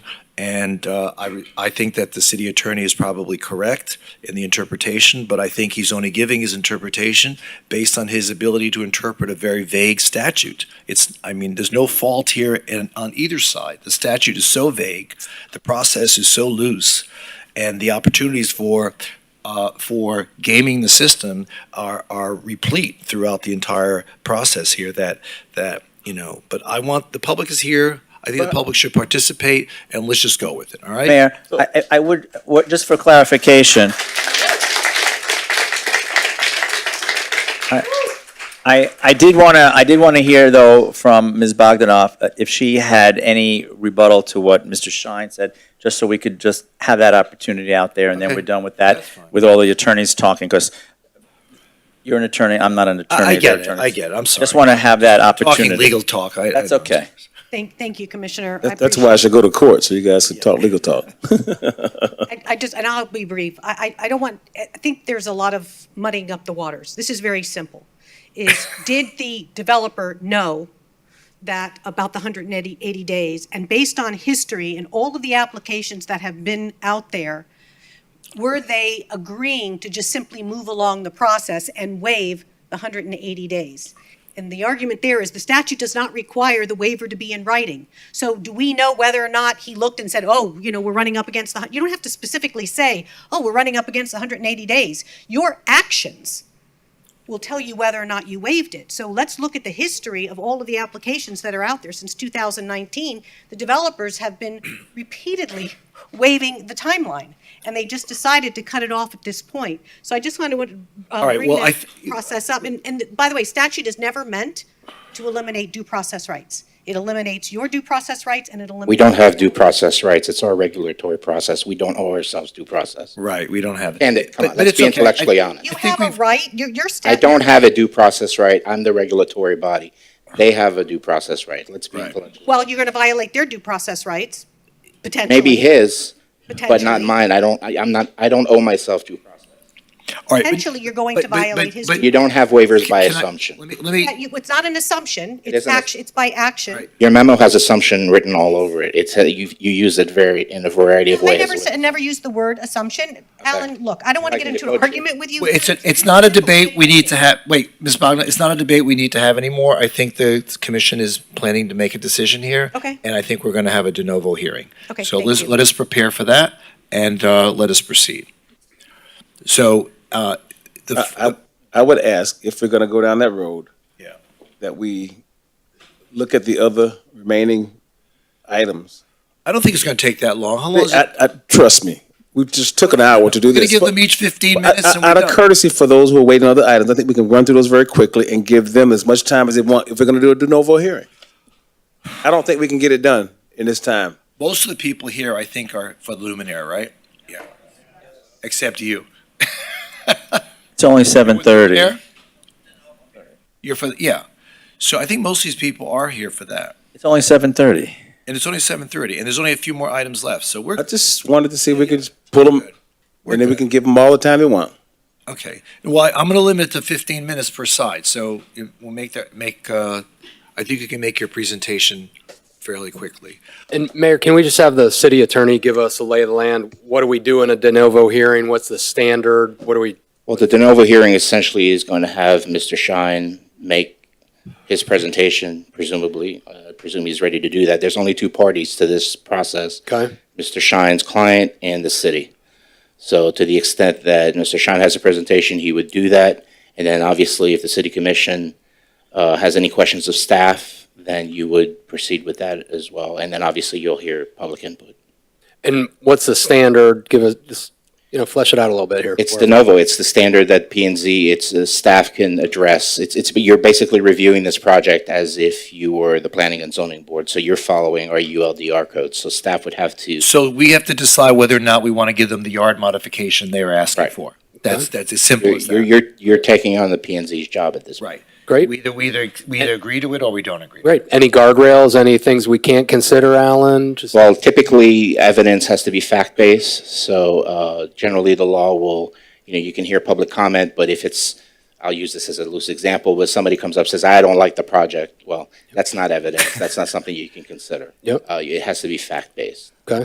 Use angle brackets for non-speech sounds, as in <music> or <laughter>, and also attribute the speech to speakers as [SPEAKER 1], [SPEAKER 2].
[SPEAKER 1] And uh, I, re- I think that the city attorney is probably correct in the interpretation, but I think he's only giving his interpretation based on his ability to interpret a very vague statute. It's, I mean, there's no fault here in, on either side. The statute is so vague, the process is so loose, and the opportunities for, uh, for gaming the system are, are replete throughout the entire process here that, that, you know, but I want, the public is here. I think the public should participate and let's just go with it, all right?
[SPEAKER 2] Mayor, I, I- I would, what, just for clarification. I- I, I did want to, I did want to hear though from Ms. Bogdanoff, uh, if she had any rebuttal to what Mr. Shine said, just so we could just have that opportunity out there and then
[SPEAKER 1] Okay.
[SPEAKER 2] we're done with that,
[SPEAKER 1] That's fine.
[SPEAKER 2] with all the attorneys talking, because you're an attorney, I'm not an attorney.
[SPEAKER 1] I, I
[SPEAKER 2] they're
[SPEAKER 1] get it, I
[SPEAKER 2] attorneys.
[SPEAKER 1] get it, I'm sorry.
[SPEAKER 2] Just want to have that
[SPEAKER 1] Talking
[SPEAKER 2] opportunity.
[SPEAKER 1] legal talk, I. I-
[SPEAKER 2] That's okay.
[SPEAKER 3] Thank, thank you, Commissioner. I
[SPEAKER 4] That- That's why I should go to court, so you guys can talk legal talk.
[SPEAKER 3] appreciate- I I just, and I'll be brief. I, I, I don't want, I think there's a lot of muddying up the waters. This is very simple.
[SPEAKER 4] <laughs>
[SPEAKER 3] Is, did the developer know that, about the 180 days? And based on history and all of the applications that have been out there, were they agreeing to just simply move along the process and waive the 180 days? And the argument there is the statute does not require the waiver to be in writing. So do we know whether or not he looked and said, oh, you know, we're running up against the, hun-" you don't have to specifically say, oh, we're running up against the 180 days. Your actions will tell you whether or not you waived it. So let's look at the history of all of the applications that are out there since 2019. The developers have been <clears throat> repeatedly waiving the timeline, and they just decided to cut it off at this point. So I just wanted to
[SPEAKER 1] All
[SPEAKER 3] uh,
[SPEAKER 1] right,
[SPEAKER 3] bring
[SPEAKER 1] well, I
[SPEAKER 3] that
[SPEAKER 1] th-
[SPEAKER 3] process up. And, and by the way, statute is never meant to eliminate due process rights. It eliminates your due process rights, and it eliminates.
[SPEAKER 5] We don't have due process rights. It's our regulatory process. We don't owe ourselves due process.
[SPEAKER 1] Right, we don't have it.
[SPEAKER 5] And it,
[SPEAKER 1] But-
[SPEAKER 5] come
[SPEAKER 1] but
[SPEAKER 5] on, let's
[SPEAKER 1] it's
[SPEAKER 5] be
[SPEAKER 1] okay.
[SPEAKER 5] intellectually
[SPEAKER 1] I-
[SPEAKER 5] honest.
[SPEAKER 3] You
[SPEAKER 1] I think
[SPEAKER 3] have a
[SPEAKER 1] we've-
[SPEAKER 3] right, your, your
[SPEAKER 5] I
[SPEAKER 3] statute.
[SPEAKER 5] don't have a due process right. I'm the regulatory body. They have a due process right. Let's be
[SPEAKER 1] Right.
[SPEAKER 5] intellectual.
[SPEAKER 3] Well, you're going to violate their due process rights, potentially.
[SPEAKER 5] Maybe his, but not
[SPEAKER 3] Potentially.
[SPEAKER 5] mine. I don't, I, I'm not, I don't owe myself due process.
[SPEAKER 1] all right, but-
[SPEAKER 3] Potentially, you're going
[SPEAKER 1] but-
[SPEAKER 3] to
[SPEAKER 1] but-
[SPEAKER 3] violate his
[SPEAKER 1] but-
[SPEAKER 3] due
[SPEAKER 5] You don't have waivers by
[SPEAKER 1] Can I- Let
[SPEAKER 5] assumption.
[SPEAKER 1] me, let me.
[SPEAKER 3] Yeah, you- It's not an assumption, it's
[SPEAKER 5] isn't a-
[SPEAKER 3] action, it's by action.
[SPEAKER 1] Right.
[SPEAKER 5] Your memo has assumption written all over it. It's, you, you use it very, in a variety of
[SPEAKER 3] I
[SPEAKER 5] ways.
[SPEAKER 3] never said, never used the word assumption. Alan, look, I don't want
[SPEAKER 5] I
[SPEAKER 3] to get
[SPEAKER 5] can
[SPEAKER 3] into
[SPEAKER 5] devote
[SPEAKER 3] an
[SPEAKER 5] you.
[SPEAKER 3] argument with you.
[SPEAKER 1] Well, It's, a- it's not a debate we need to have, wait, Ms. Bogdan, it's not a debate we need to have anymore. I think the commission is planning to make a decision here.
[SPEAKER 3] Okay.
[SPEAKER 1] And I think we're going to have a de novo hearing.
[SPEAKER 3] Okay,
[SPEAKER 1] So
[SPEAKER 3] thank
[SPEAKER 1] let's,
[SPEAKER 3] you.
[SPEAKER 1] let us prepare for that and uh, let us proceed. So uh, the,
[SPEAKER 4] I,
[SPEAKER 1] f-
[SPEAKER 4] I would ask if we're gonna go down that road.
[SPEAKER 1] Yeah.
[SPEAKER 4] That we look at the other remaining items.
[SPEAKER 1] I don't think it's going to take that long. How long is
[SPEAKER 4] I,
[SPEAKER 1] it?
[SPEAKER 4] I, trust me, we just took an hour to do
[SPEAKER 1] We're going
[SPEAKER 4] this.
[SPEAKER 1] to give
[SPEAKER 4] but-
[SPEAKER 1] them each 15
[SPEAKER 4] but
[SPEAKER 1] minutes and
[SPEAKER 4] I-
[SPEAKER 1] we're
[SPEAKER 4] Out of
[SPEAKER 1] done.
[SPEAKER 4] courtesy for those who are waiting on other items, I think we can run through those very quickly and give them as much time as they want if we're gonna do a de novo hearing. I don't think we can get it done in this time.
[SPEAKER 1] Most of the people here, I think, are for Luminaire, right? Yeah. Except you.
[SPEAKER 2] It's only seven thirty.
[SPEAKER 1] Luminaire? You're for, yeah. So I think most of these people are here for that.
[SPEAKER 2] It's only seven thirty.
[SPEAKER 1] And it's only seven thirty, and there's only a few more items left, so we're,
[SPEAKER 4] I just wanted to see if we could just pull them,
[SPEAKER 1] we're
[SPEAKER 4] and then we
[SPEAKER 1] good.
[SPEAKER 4] can give them all the time they want.
[SPEAKER 1] Okay, well, I'm gonna limit it to fifteen minutes per side, so it- we'll make that, make, uh, I think you can make your presentation fairly quickly.
[SPEAKER 6] And Mayor, can we just have the city attorney give us a lay of the land? What do we do in a de novo hearing? What's the standard? What do we,
[SPEAKER 5] Well, the de novo hearing essentially is going to have Mr. Shine make his presentation, presumably. I presume he's ready to do that. There's only two parties to this process.
[SPEAKER 6] Okay.
[SPEAKER 5] Mr. Shine's client and the city. So to the extent that Mr. Shine has a presentation, he would do that. And then obviously, if the city commission uh, has any questions of staff, then you would proceed with that as well. And then obviously, you'll hear public input.
[SPEAKER 6] and what's the standard? Give us, just, you know, flesh it out a little bit here.
[SPEAKER 5] It's de novo. It's the standard that P and Z, it's uh, staff can address. It's it's you're basically reviewing this project as if you were the planning and zoning board. So you're following our ULDR code. So staff would have to.
[SPEAKER 1] So we have to decide whether or not we wanna give them the yard modification they are asking
[SPEAKER 5] Right.
[SPEAKER 1] for. That's, that's as simple
[SPEAKER 5] You're
[SPEAKER 1] as
[SPEAKER 5] you're
[SPEAKER 1] that,
[SPEAKER 5] you're, you're taking on the P and Z's job at this. point.
[SPEAKER 1] right?
[SPEAKER 6] Great.
[SPEAKER 1] We either, we either, we either agree to it or we don't agree. to it.
[SPEAKER 6] Great. Any guardrails, any things we can't consider, Alan? Just,
[SPEAKER 5] Well, typically evidence has to be fact based. So uh, generally, the law will you know you can hear public comment, but if it's I'll use this as a loose example, but somebody comes up says, "I don't like the project." Well, that's not evidence. That's not something you can consider.
[SPEAKER 6] Yep.
[SPEAKER 5] Uh, it has to be fact based.